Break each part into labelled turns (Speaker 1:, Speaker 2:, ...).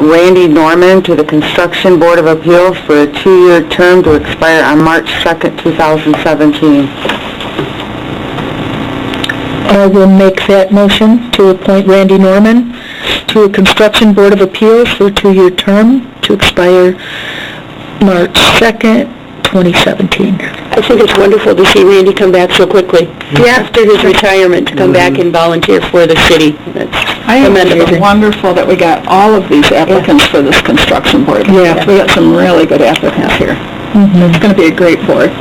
Speaker 1: Randy Norman to the Construction Board of Appeals for a two-year term to expire on March 2nd, 2017.
Speaker 2: I will make that motion to appoint Randy Norman to a Construction Board of Appeals for a two-year term to expire March 2nd, 2017.
Speaker 3: I think it's wonderful to see Randy come back so quickly. After his retirement, to come back and volunteer for the city.
Speaker 4: I
Speaker 3: That's
Speaker 4: think
Speaker 3: commendable.
Speaker 4: it's wonderful that we got all of these applicants for this construction board.
Speaker 2: Yeah.
Speaker 4: We got some really good applicants here.
Speaker 3: Mm-hmm.
Speaker 4: It's gonna be a great board.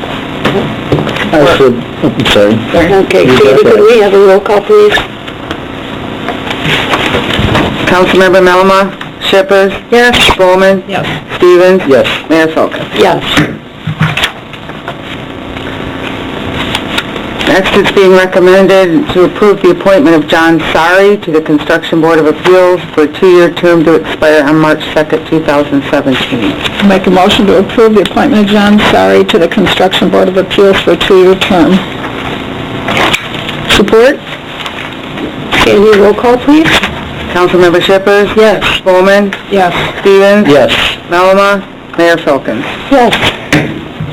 Speaker 5: I should, I'm sorry.
Speaker 3: Okay, Sandy, could we have a roll call, please?
Speaker 1: Councilmember Melama? Shepherd? Yes. Bowman? Yes. Stevens?
Speaker 5: Yes.
Speaker 1: Mayor Folkins?
Speaker 3: Yes.
Speaker 1: Next, it's being recommended to approve the appointment of John Sari to the Construction Board of Appeals for a two-year term to expire on March 2nd, 2017.
Speaker 4: Make a motion to approve the appointment of John Sari to the Construction Board of Appeals for a two-year term.
Speaker 3: Support? Sandy, roll call, please?
Speaker 1: Councilmember Shepherd?
Speaker 3: Yes.
Speaker 1: Bowman?
Speaker 4: Yes.
Speaker 1: Stevens?
Speaker 5: Yes.
Speaker 1: Melama? Mayor Folkins?
Speaker 3: Yes.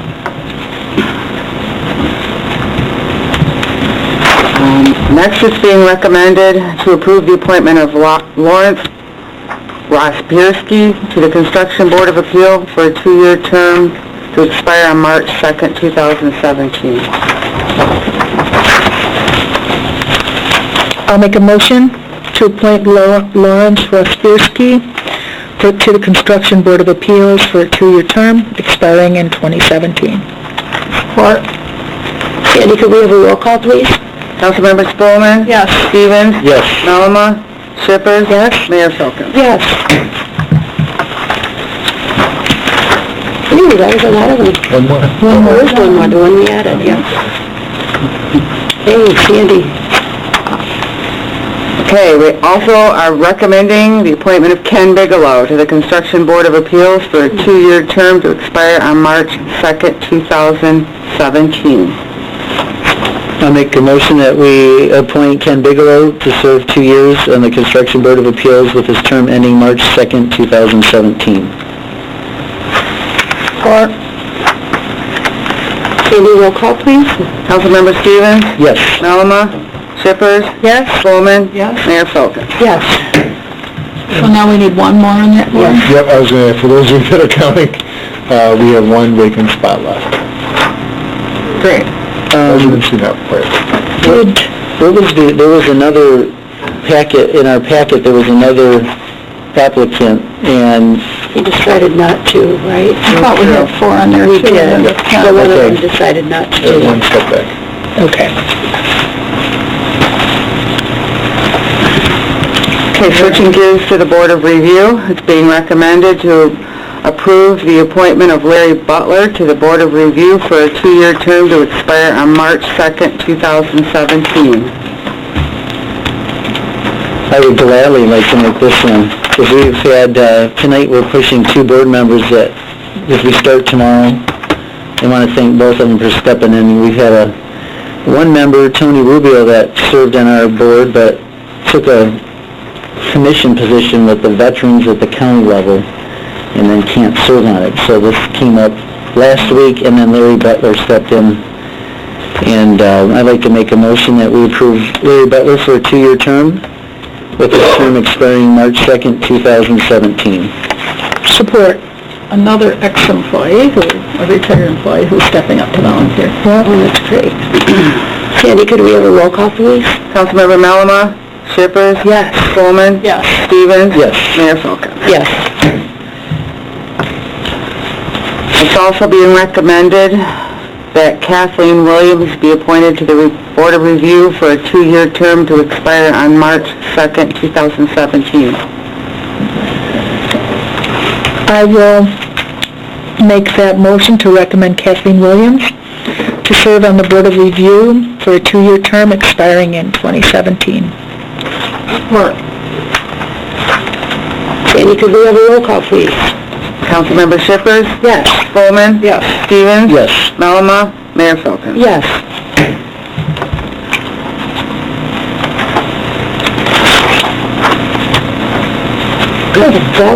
Speaker 1: Um, Next, it's being recommended to approve the appointment of Lo- Lawrence Rospierski to the Construction Board of Appeal for a two-year term to expire on March 2nd, 2017.
Speaker 2: I'll make a motion to appoint Lo- Lawrence Rothfierski for to the Construction Board of Appeals for a two-year term expiring in 2017.
Speaker 3: Support. Sandy, could we have a roll call, please?
Speaker 1: Councilmember Spelman.
Speaker 4: Yes.
Speaker 1: Stevens?
Speaker 5: Yes.
Speaker 1: Maluma? Shippers? Yes. Mayor Filkins?
Speaker 3: Yes. Ooh, that was a lot of them.
Speaker 5: One more.
Speaker 3: There is one more, the one we added, yeah. Hey, Sandy.
Speaker 1: Okay, we also are recommending the appointment of Ken Bigelow to the Construction Board of Appeals for a two-year term to expire on March 2nd, 2017.
Speaker 5: I make a motion that we appoint Ken Bigelow to serve two years on the Construction Board of Appeals with his term ending March 2nd, 2017.
Speaker 3: Support. Sandy, roll call, please.
Speaker 1: Councilmember Stevens?
Speaker 5: Yes.
Speaker 1: Maluma? Shippers? Yes. Spelman.
Speaker 4: Yes.
Speaker 1: Mayor Filkins?
Speaker 3: Yes.
Speaker 4: So now we need one more on that board?
Speaker 6: Yep, I was gonna, for those of you that are counting, uh, we have one vacant spot left.
Speaker 4: Great.
Speaker 5: Um,
Speaker 6: Residency not required.
Speaker 5: what what was the, there was another packet, in our packet, there was another applicant, and
Speaker 3: He decided not to, right?
Speaker 4: I thought we had four on there
Speaker 3: We
Speaker 4: too.
Speaker 3: did. The one of them
Speaker 5: Okay.
Speaker 3: decided not
Speaker 6: There's
Speaker 3: to.
Speaker 6: one step back.
Speaker 2: Okay.
Speaker 1: Okay, switching gears to the Board of Review, it's being recommended to approve the appointment of Larry Butler to the Board of Review for a two-year term to expire on March 2nd, 2017.
Speaker 5: I would gladly like to make this one, because we've had, uh, tonight we're pushing two board members that, if we start tomorrow, I want to thank both of them for stepping in. We've had a, one member, Tony Rubio, that served on our board, but took a commission position with the veterans at the county level, and then can't serve on it. So this came up last week, and then Larry Butler stepped in and uh, I'd like to make a motion that we approve Larry Butler for a two-year term, with his term expiring March 2nd, 2017.
Speaker 4: Support. Another ex-employee who, a retired employee who's stepping up to volunteer.
Speaker 3: Oh, that's great. Sandy, could we have a roll call, please?
Speaker 1: Councilmember Malama? Shippers? Yes. Spelman.
Speaker 4: Yes.
Speaker 1: Stevens?
Speaker 5: Yes.
Speaker 1: Mayor Falcon.
Speaker 3: Yes.
Speaker 1: It's also being recommended that Kathleen Williams be appointed to the Re- Board of Review for a two-year term to expire on March 2nd, 2017.
Speaker 2: I will make that motion to recommend Kathleen Williams to serve on the Board of Review for a two-year term expiring in 2017.
Speaker 3: Sandy, could we have a roll call, please?
Speaker 1: Councilmember Shippers?
Speaker 3: Yes.
Speaker 1: Spelman.
Speaker 4: Yes.
Speaker 1: Stevens?
Speaker 5: Yes.
Speaker 1: Malama, Mayor Filkins.
Speaker 3: Yes. Good, that